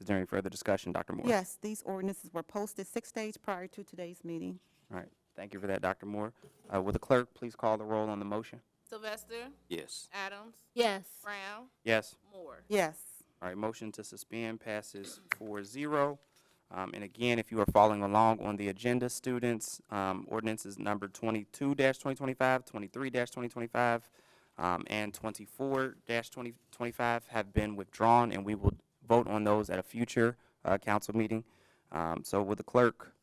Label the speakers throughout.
Speaker 1: there any further discussion, Dr. Moore?
Speaker 2: Yes, these ordinances were posted six days prior to today's meeting.
Speaker 1: All right, thank you for that, Dr. Moore. Uh, Will the clerk please call the roll on the motion?
Speaker 3: Sylvester,
Speaker 4: Yes.
Speaker 3: Adams,
Speaker 5: yes,
Speaker 3: Brown,
Speaker 1: Yes.
Speaker 3: Moore.
Speaker 2: Yes,
Speaker 1: All right, motion to suspend passes 4-0. Um, and again, if you are following along on the agenda, students, um, ordinances number twenty-two 2025 23 twenty twenty-five, um, and twenty-four twenty twenty-five have been withdrawn, and we will vote on those at a future, uh, council meeting. Um, so with the clerk,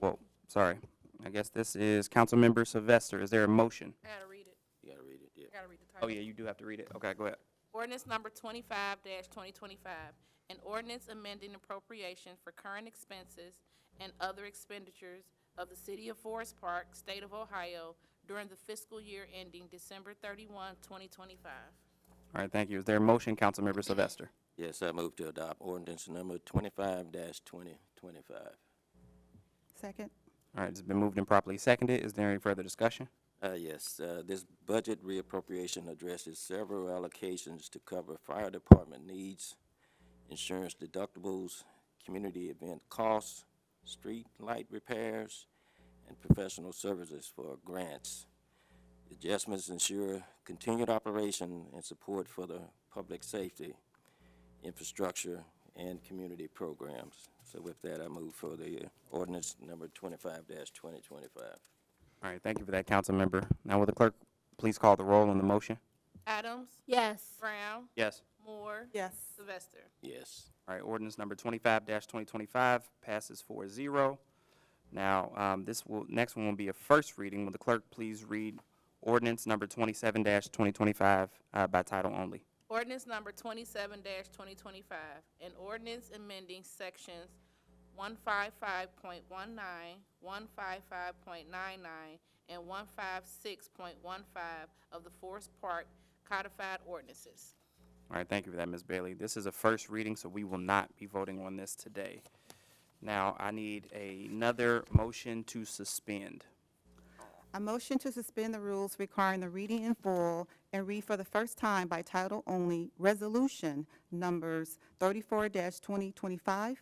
Speaker 1: whoa, sorry, I guess this is Councilmember Sylvester, is there a motion?
Speaker 3: I gotta read it.
Speaker 4: You gotta read it, yeah.
Speaker 3: I gotta read the
Speaker 1: Oh,
Speaker 3: title.
Speaker 1: yeah, you do have to read it, okay, go ahead.
Speaker 3: Ordinance number twenty-five twenty twenty-five, an ordinance amending appropriation for current expenses and other expenditures of the city of Forest Park, state of Ohio during the fiscal year ending December thirty-one, twenty twenty-five.
Speaker 1: All right, thank you, is there a motion, Councilmember Sylvester?
Speaker 4: Yes, I move to adopt ordinance number twenty-five twenty twenty-five.
Speaker 2: second?
Speaker 1: All right, it's been moved and properly seconded. Is there any further discussion?
Speaker 4: Uh, yes, uh, this budget reappropriation addresses several allocations to cover fire department needs, insurance deductibles, community event costs, street light repairs, and professional services for grants. Adjustments ensure continued operation and support for the public safety, infrastructure, and community programs. So with that, I move for the ordinance number twenty-five twenty twenty-five.
Speaker 1: All right, thank you for that, council member. Now, will the clerk please call the roll on the motion?
Speaker 3: Adams,
Speaker 5: yes,
Speaker 3: Brown,
Speaker 1: Yes.
Speaker 3: Moore,
Speaker 2: Yes,
Speaker 3: Sylvester.
Speaker 4: Yes.
Speaker 1: All right, ordinance number twenty-five twenty twenty-five passes 4-0. Now, um, this will, next one will be a first reading. Will the clerk please read ordinance number twenty-seven twenty twenty-five, uh, by title only?
Speaker 3: Ordinance number twenty-seven twenty twenty-five, an ordinance amending sections one five five point one nine, one five five point nine nine, and one five six point one five of the Forest Park codified ordinances.
Speaker 1: All right, thank you for that, Ms. Bailey. This is a first reading, so we will not be voting on this today. Now, I need another motion to suspend.
Speaker 2: a motion to suspend the rules requiring the reading in full and read for the first time by title only, Resolution Numbers thirty-four twenty twenty-five.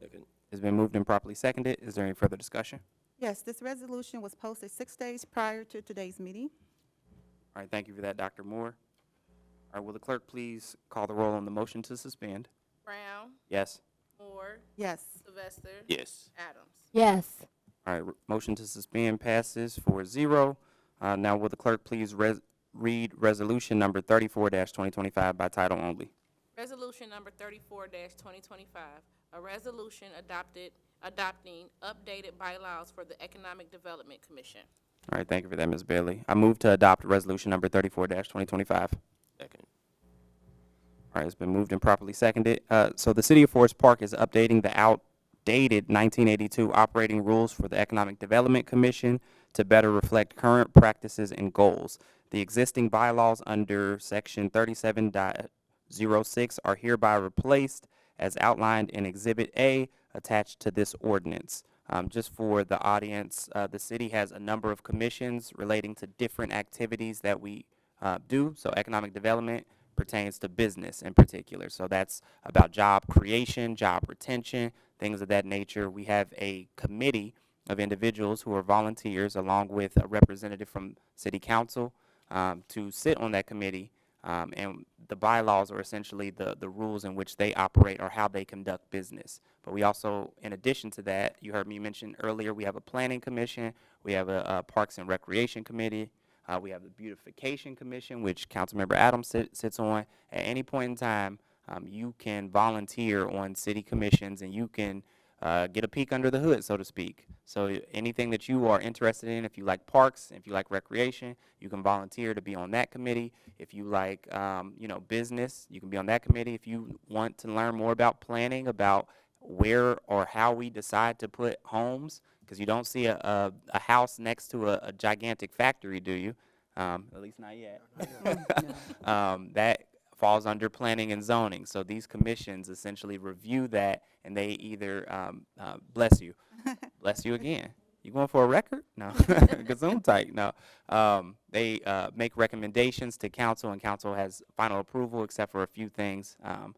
Speaker 4: Second.
Speaker 1: It's been moved and properly seconded. Is there any further discussion?
Speaker 2: Yes, this resolution was posted six days prior to today's meeting.
Speaker 1: All right, thank you for that, Dr. Moore. All right, will the clerk please call the roll on the motion to suspend?
Speaker 3: Brown,
Speaker 1: Yes.
Speaker 3: Moore,
Speaker 2: Yes,
Speaker 3: Sylvester.
Speaker 4: Yes.
Speaker 3: Adams.
Speaker 5: yes,
Speaker 1: All right, r- motion to suspend passes 4-0. Uh, now will the clerk please res- read resolution number thirty-four twenty twenty-five by title only?
Speaker 3: Resolution number thirty-four twenty twenty-five, a resolution adopted, adopting updated bylaws for the Economic Development Commission.
Speaker 1: All right, thank you for that, Ms. Bailey. I move to adopt resolution number thirty-four twenty twenty-five.
Speaker 4: Second.
Speaker 1: All right, it's been moved and properly seconded. Uh, so the City of Forest Park is updating the outdated 1982 operating rules for the Economic Development Commission to better reflect current practices and goals. The existing bylaws under Section 37.06 are hereby replaced as outlined in Exhibit A attached to this ordinance. Um, just for the audience, uh, the city has a number of commissions relating to different activities that we uh, do. So economic development pertains to business in particular. So that's about job creation, job retention, things of that nature. We have a committee of individuals who are volunteers along with a representative from city council um, to sit on that committee. Um, and the bylaws are essentially the, the rules in which they operate or how they conduct business. But we also, in addition to that, you heard me mention earlier, we have a planning commission, we have a, uh Parks and Recreation Committee, uh, we have the Beautification Commission, which Councilmember Adams sit, sits on. At any point in time, um, you can volunteer on city commissions and you can uh, get a peek under the hood, so to speak. So i- anything that you are interested in, if you like parks, if you like recreation, you can volunteer to be on that committee. If you like, um, you know, business, you can be on that committee. If you want to learn more about planning, about where or how we decide to put homes, because you don't see a, a, a house next to a, a gigantic factory, do you? Um, at least not yet. um, that falls under planning and zoning. So these commissions essentially review that, and they either um, uh, bless you, bless you again. you going for a record? No, gazoon tight. No, um, they uh, make recommendations to council, and council has final approval, except for a few things. Um,